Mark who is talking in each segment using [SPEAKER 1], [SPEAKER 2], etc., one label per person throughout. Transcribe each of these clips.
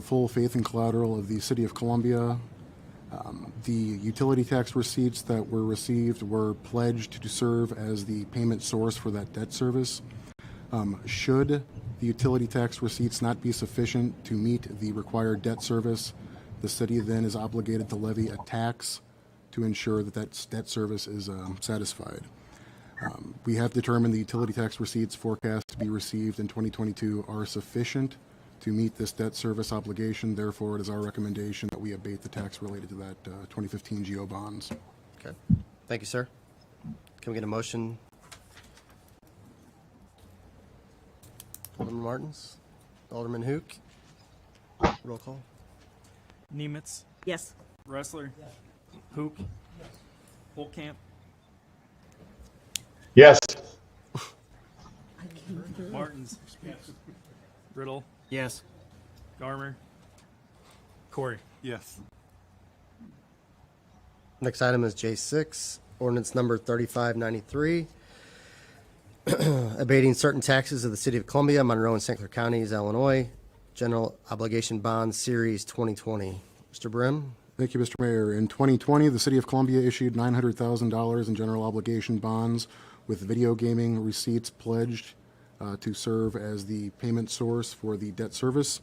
[SPEAKER 1] full faith and collateral of the City of Columbia. Um, The utility tax receipts that were received were pledged to serve as the payment source for that debt service. Um, Should the utility tax receipts not be sufficient to meet the required debt service, the city then is obligated to levy a tax to ensure that that debt service is um, satisfied. We have determined the utility tax receipts forecast to be received in 2022 are sufficient to meet this debt service obligation. Therefore, it is our recommendation that we abate the tax related to that uh, 2015 GO bonds.
[SPEAKER 2] Okay. Thank you, sir. Can we get a motion? Alderman Martins? Alderman Hook? Roll call.
[SPEAKER 3] Nemitz,
[SPEAKER 4] Yes.
[SPEAKER 3] Wrestler, Hook, Holcamp,
[SPEAKER 5] Yes.
[SPEAKER 3] Martins, Riddle. Yes. Garmer, Corey.
[SPEAKER 6] Yes.
[SPEAKER 2] Next item is J6, ordinance number 3593, abating certain taxes of the City of Columbia, Monroe, and St. Clair Counties, Illinois, General Obligation Bond Series 2020. Mr. Brim?
[SPEAKER 1] Thank you, Mr. Mayor. In 2020, the City of Columbia issued $900,000 in general obligation bonds with video gaming receipts pledged uh, to serve as the payment source for the debt service.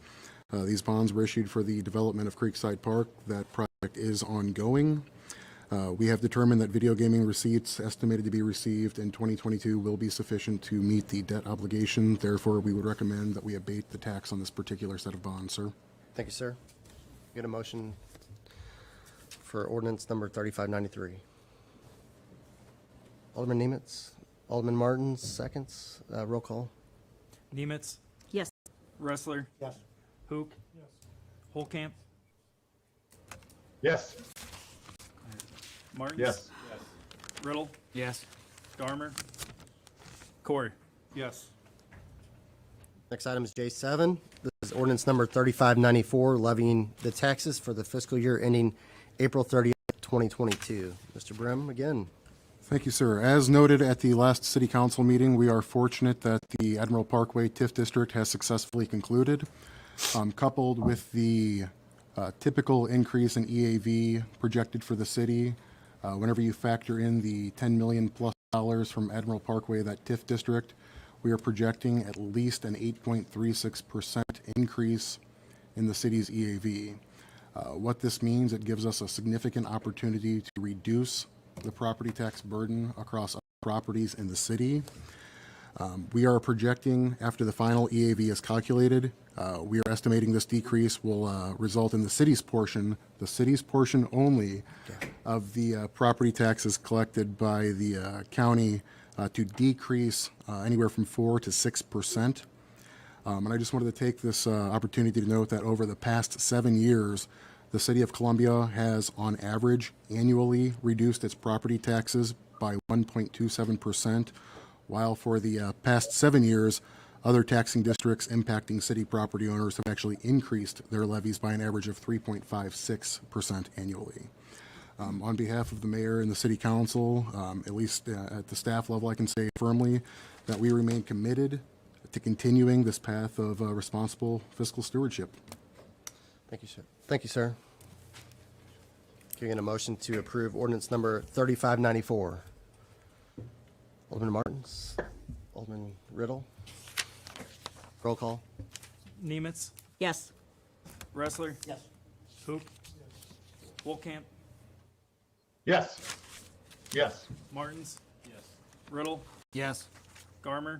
[SPEAKER 1] Uh, These bonds were issued for the development of Creekside Park. That project is ongoing. Uh, We have determined that video gaming receipts estimated to be received in 2022 will be sufficient to meet the debt obligation. Therefore, we would recommend that we abate the tax on this particular set of bonds, sir.
[SPEAKER 2] Thank you, sir. Get a motion for ordinance number 3593. Alderman Nemitz, Alderman Martins, seconds, Uh, roll call.
[SPEAKER 3] Nemitz,
[SPEAKER 4] Yes.
[SPEAKER 3] Wrestler. Yes. Hook. Holcamp,
[SPEAKER 5] Yes.
[SPEAKER 3] Martins.
[SPEAKER 5] Yes.
[SPEAKER 3] Riddle. Yes. Garmer, Corey.
[SPEAKER 6] Yes.
[SPEAKER 2] Next item is J7. This is ordinance number 3594, levying the taxes for the fiscal year ending April 30th, 2022. Mr. Brim, again.
[SPEAKER 1] Thank you, sir. As noted at the last city council meeting, we are fortunate that the Admiral Parkway TIF district has successfully concluded. Um, Coupled with the uh, typical increase in EAV projected for the city, uh, whenever you factor in the 10 million plus dollars from Admiral Parkway, that TIF district, we are projecting at least an 8.36% increase in the city's E EAV. Uh, What this means, it gives us a significant opportunity to reduce the property tax burden across all properties in the city. Um, We are projecting, after the final EAV is calculated, uh, we are estimating this decrease will uh, result in the city's portion, the city's portion only of the uh, property taxes collected by the uh, county uh, to decrease uh, anywhere from 4 to 6 percent. Um, and I just wanted to take this uh, opportunity to note that over the past seven years, the city of Columbia has, on average, annually reduced its property taxes by 1.27%, while for the uh, past seven years, other taxing districts impacting city property owners have actually increased their levies by an average of 3.56% annually. Um, On behalf of the mayor and the city council, um, at least uh, at the staff level, I can say firmly that we remain committed to continuing this path of uh, responsible fiscal stewardship.
[SPEAKER 2] Thank you, sir. Thank you, sir. Can we get a motion to approve ordinance number 3594? Alderman Martins, Alderman Riddle. Roll call.
[SPEAKER 3] Nemitz,
[SPEAKER 4] Yes.
[SPEAKER 3] Wrestler. Yes. Hook. Holcamp,
[SPEAKER 5] Yes. Yes.
[SPEAKER 3] Martins. Yes. Riddle.
[SPEAKER 2] Yes.
[SPEAKER 3] Garmer,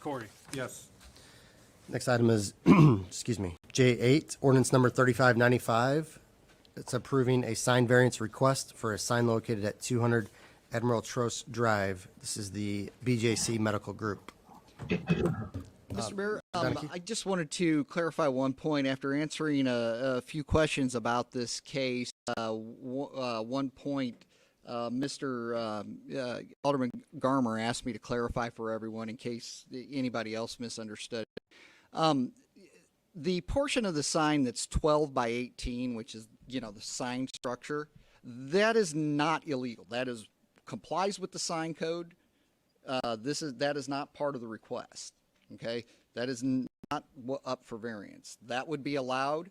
[SPEAKER 3] Corey.
[SPEAKER 6] Yes.
[SPEAKER 2] Next item is, excuse me, J8, ordinance number 3595. It's approving a sign variance request for a sign located at 200 Admiral Trost Drive. This is the BJC Medical Group.
[SPEAKER 7] Mr. Mayor,
[SPEAKER 2] Zanicki?
[SPEAKER 7] um, I just wanted to clarify one point after answering a, a few questions about this case. Uh, w- uh, one point, uh, Mr. Um, uh, Alderman Garmer asked me to clarify for everyone in case anybody else misunderstood. Um, the portion of the sign that's 12 by 18, which is, you know, the sign structure, that is not illegal. That is complies with the sign code. Uh, this is that is not part of the request. Okay, that is n- not wa- up for variance. That would be allowed.